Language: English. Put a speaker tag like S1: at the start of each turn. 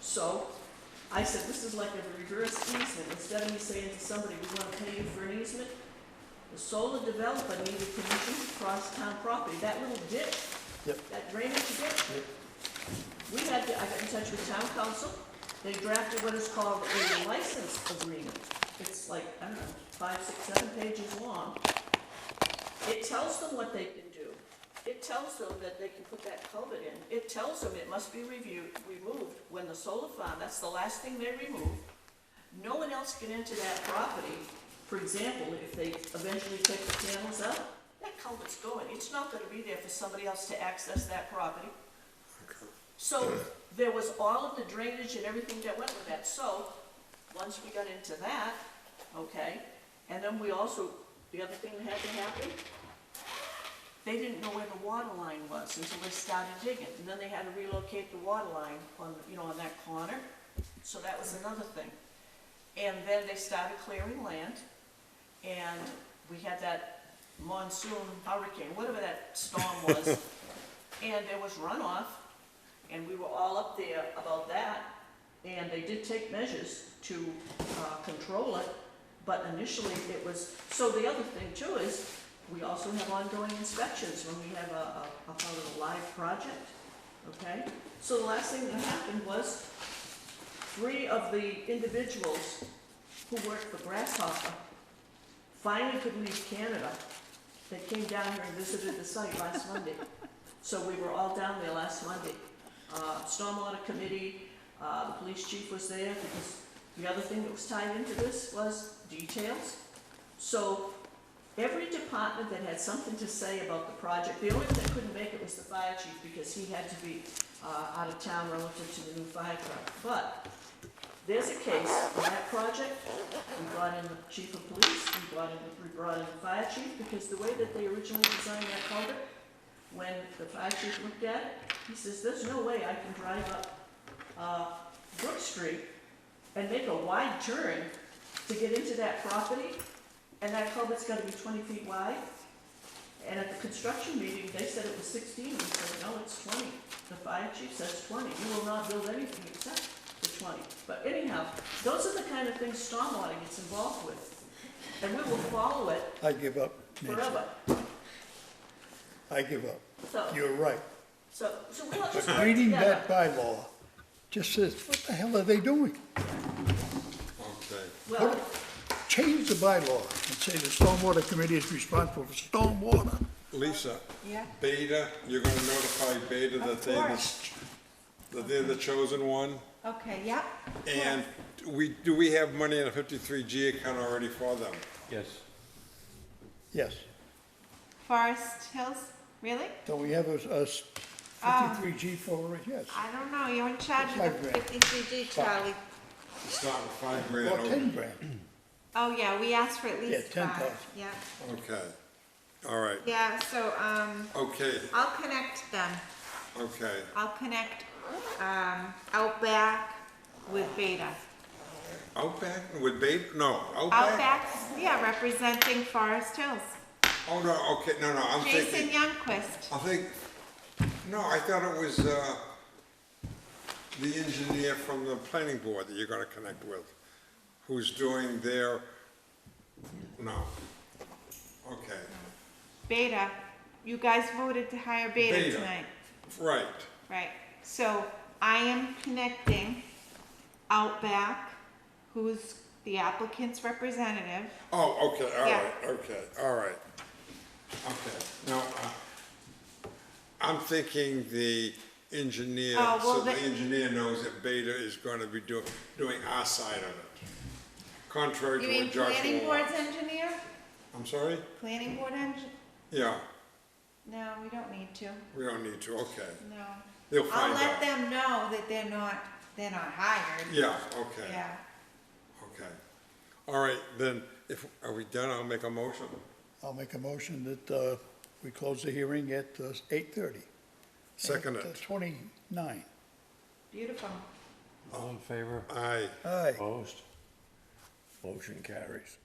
S1: So I said, this is like a reverse easement. Instead of me saying to somebody, we want to pay you for an easement, the solar developer needed permission to cross town property. That little ditch,
S2: Yep.
S1: that drainage ditch.
S2: Yep.
S1: We had to, I got in touch with town council. They drafted what is called a license agreement. It's like, I don't know, five, six, seven pages long. It tells them what they can do. It tells them that they can put that culvert in. It tells them it must be reviewed, removed when the solar farm, that's the last thing they remove. No one else can enter that property. For example, if they eventually take the panels out, that culvert's going. It's not gonna be there for somebody else to access that property. So there was all of the drainage and everything that went with that. So, once we got into that, okay, and then we also, the other thing that had to happen, they didn't know where the water line was until they started digging. And then they had to relocate the water line on, you know, on that corner. So that was another thing. And then they started clearing land, and we had that monsoon hurricane, whatever that storm was. And there was runoff, and we were all up there about that. And they did take measures to uh, control it, but initially it was, so the other thing too is, we also have ongoing inspections when we have a, a, a part of a live project, okay? So the last thing that happened was, three of the individuals who worked for Grasshopper finally could leave Canada. They came down here and visited the site last Monday. So we were all down there last Monday. Uh, Stormwater Committee, uh, the police chief was there because the other thing that was tied into this was details. So every department that had something to say about the project, the only one that couldn't make it was the fire chief because he had to be uh, out of town relative to the new fire truck. But there's a case on that project, we brought in the chief of police, we brought in, we brought in the fire chief, because the way that they originally designed that culvert, when the fire chief looked at it, he says, there's no way I can drive up, uh, Brook Street and make a wide turn to get into that property, and that culvert's gotta be twenty feet wide. And at the construction meeting, they said it was sixteen, we said, no, it's twenty. The fire chief says twenty, you will not build anything except the twenty. But anyhow, those are the kind of things stormwater gets involved with, and we will follow it
S2: I give up, Nancy.
S1: forever.
S2: I give up.
S1: So,
S2: You're right.
S1: so, so we all just
S2: But
S1: work
S2: reading
S1: together.
S2: that bylaw just says, what the hell are they doing?
S3: Okay.
S1: Well,
S2: Change the bylaw and say the stormwater committee is responsible for stormwater.
S3: Lisa,
S4: Yeah,
S3: Beta, you're gonna notify Beta that
S4: Of
S3: they, are
S4: course.
S3: that they're the chosen one?
S4: okay, yeah.
S3: And we, do we have money in a fifty-three G account already for them?
S5: Yes.
S2: Yes.
S4: Forest Hills, really?
S2: Don't we have a, a fifty-three G for it? Yes.
S1: Ah.
S4: I don't know, you're in charge
S2: Five
S4: of the
S2: grand.
S4: fifty-three D, Charlie.
S3: It's not five grand
S2: Or ten
S3: over.
S2: grand.
S4: Oh, yeah, we asked for at
S2: Yeah,
S4: least
S2: 10,000.
S4: five, yeah.
S3: Okay, all right,
S4: Yeah, so, um,
S3: okay,
S4: I'll connect them,
S3: okay,
S4: I'll connect, um, Outback with Beta.
S3: Outback, with Beta, no, Outback?
S4: Outback's, yeah, representing Forest Hills.
S3: Oh, no, okay, no, no, I'm
S4: Jason
S3: thinking,
S4: Youngquist,
S3: I think, no, I thought it was, uh, the engineer from the planning board that you're gonna connect with, who's doing their, no, okay,
S4: Beta, you guys voted to hire Beta
S3: Beta.
S4: tonight.
S3: right,
S4: Right, so I am connecting Outback, who's the applicant's representative.
S3: oh, okay, all
S4: Yeah.
S3: right, okay, all right, okay, no, uh, I'm thinking the engineer,
S4: Oh, well,
S3: so the
S4: the-
S3: engineer knows that Beta is gonna be doing, doing our side of it, contrary to
S4: You
S3: what
S4: mean
S3: Joshua
S4: planning board's
S3: wants.
S4: engineer?
S3: I'm sorry?
S4: Planning board engin,
S3: Yeah,
S4: no, we don't need to,
S3: we don't need to, okay.
S4: no.
S3: They'll
S4: I'll
S3: find
S4: let
S3: out.
S4: them know that they're not, they're not hired,
S3: Yeah, okay,
S4: yeah.
S3: okay. All right, then, if, are we done? I'll make a motion.
S2: I'll make a motion that, uh, we close the hearing at uh, eight thirty. uh,
S3: Second it.
S2: Twenty-nine.
S4: Beautiful.
S5: All in favor?
S3: Aye.
S2: Aye.
S5: Opposed? Motion carries.